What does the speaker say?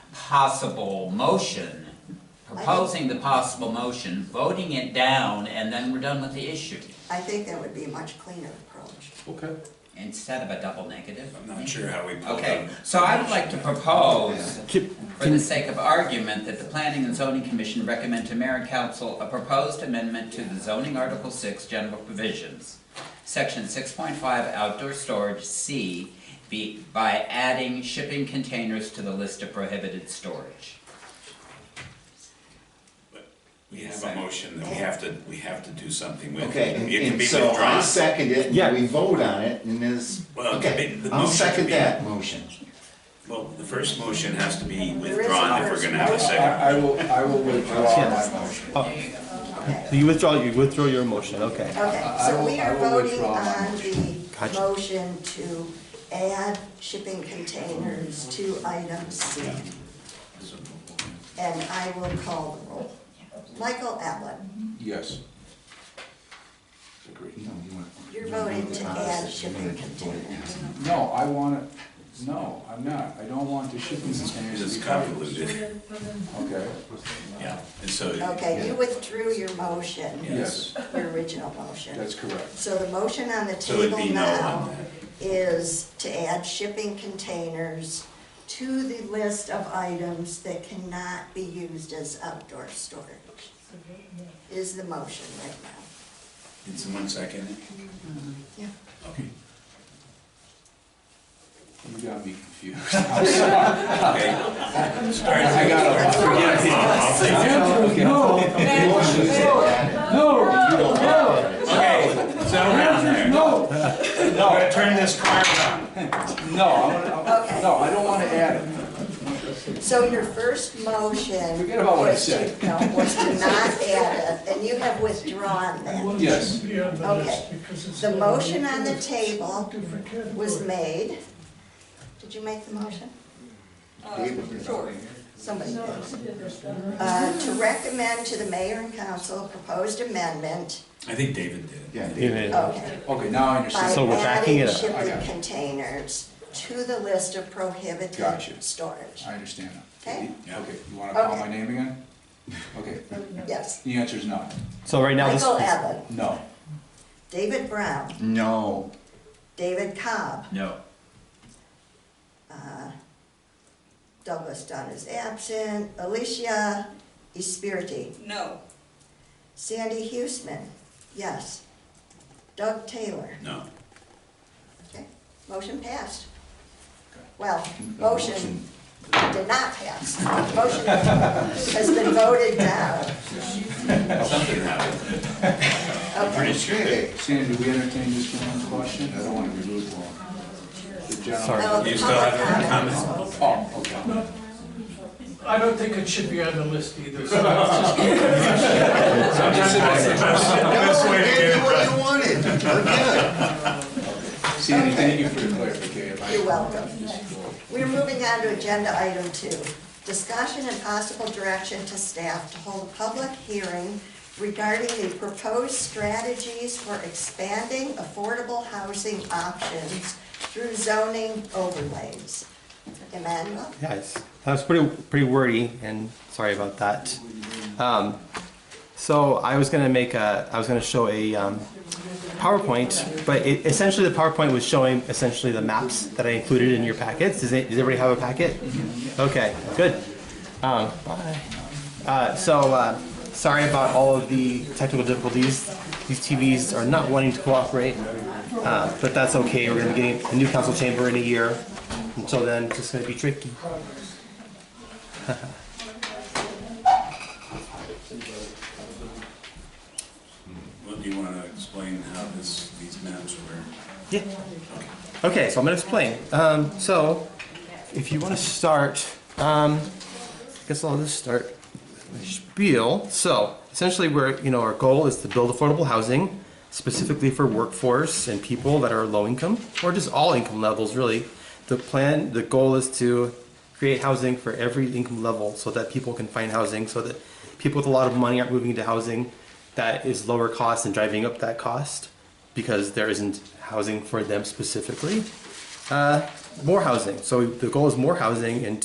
possible motion, proposing the possible motion, voting it down, and then we're done with the issue, I think that would be a much cleaner approach. Okay. instead of a double negative. I'm not sure how we pulled Okay, out. so I would like to propose, Can- for the sake of argument, that the Planning and Zoning Commission recommend to Mayor and Council a proposed amendment to the zoning Article Six general provisions, Section six point five outdoor storage C, be, by adding shipping containers to the list of prohibited storage. We have a motion that we have to, we have to do something with. Okay, and- It can and be so I withdrawn. second it, Yeah. and we vote on it, and this, Well, okay, the- the I'll motion second should be- that motion. Well, the first motion has to be There is a withdrawn if we're gonna have a first I, second. I will, I will withdraw my motion. Oh, Okay, So you withdraw, you withdraw your motion, okay. okay, I so will- we I are will voting withdraw my on the Gotcha. motion to add shipping containers to item C. And I will call the roll. Michael Allen, Yes. Agreed. you're voting to add shipping containers. No, I want to, no, I'm not. I don't want the shipping This containers to is be covered. convoluted, Okay, yeah, and so. Okay, you withdrew your motion, yes, your original motion. that's correct. So the motion on the So it'd table be no on now that. is to add shipping containers to the list of items that cannot be used as outdoor storage. Is the motion right now. Did someone second it? Yeah. Okay. You got me confused. Okay. Start. I got a. Yeah, I'll take Andrew, it. no, Motion is added. no, You don't want it. Okay, settle down there. no, We're gonna turn this car around. no, I'm gonna- I'm- no, I don't want to add it. So your first motion. Forget about what I was to- said. No, was to not add it, and you have withdrawn that. Yes, Okay, the motion on the table was made. Did you make the motion? Somebody did. Uh, To recommend to the mayor and council a proposed amendment, I think David did. Yeah. Yeah. okay, okay, now I understand. by So we're backing adding it up. I shipping got it. containers to the list of prohibited Gotcha. storage. I understand now. Okay. Yeah. Okay, you want to call my Okay. name again? Okay, Yes. the answer is no. So right now, this, Michael Evan, No. David Brown, No, David Cobb, No. uh, Douglas Dunn is absent, Alicia Espiriti, No. Sandy Huesman, yes, Doug Taylor. No. Okay, motion passed. Okay. Well, motion did not pass. Motion has been voted down. Something happened. I'm Okay, pretty sure that Sandy, do we entertain this one question? I don't want to be lukewarm. The gentleman- Sorry. now the You still have public comments? comments. Oh, okay. I don't think it should be on the list either, so let's just no, we gave you what you wanted, we're good. Sandy, thank you for the clarification. You're welcome. We're moving on to agenda item two. Discussion and possible direction to staff to hold a public hearing regarding the proposed strategies for expanding affordable housing options through zoning overlays. Emmanuel? yes, that was pretty, pretty wordy, and sorry about that. Um, so I was gonna make a, I was gonna show a, um, PowerPoint, but it, essentially the PowerPoint was showing essentially the maps that I included in your packets. Does, it, does everybody have a packet? Okay, good. Um, bye. Uh, so uh, sorry about all of the technical difficulties. These TVs are not wanting to cooperate, uh, but that's okay. We're gonna be getting a new council chamber in a year. Until then, it's just gonna be tricky. Well, do you want to explain how this, these maps were? Yeah. Okay, so I'm gonna explain. Um, so, if you want to start, um, I guess I'll just start my spiel. So, essentially, we're you know our goal is to build affordable housing, specifically for workforce and people that are low income or just all income levels really. The plan, the goal is to create housing for every income level so that people can find housing, so that people with a lot of money aren't moving into housing that is lower cost and driving up that cost because there isn't housing for them specifically. Uh, more housing. So the goal is more housing and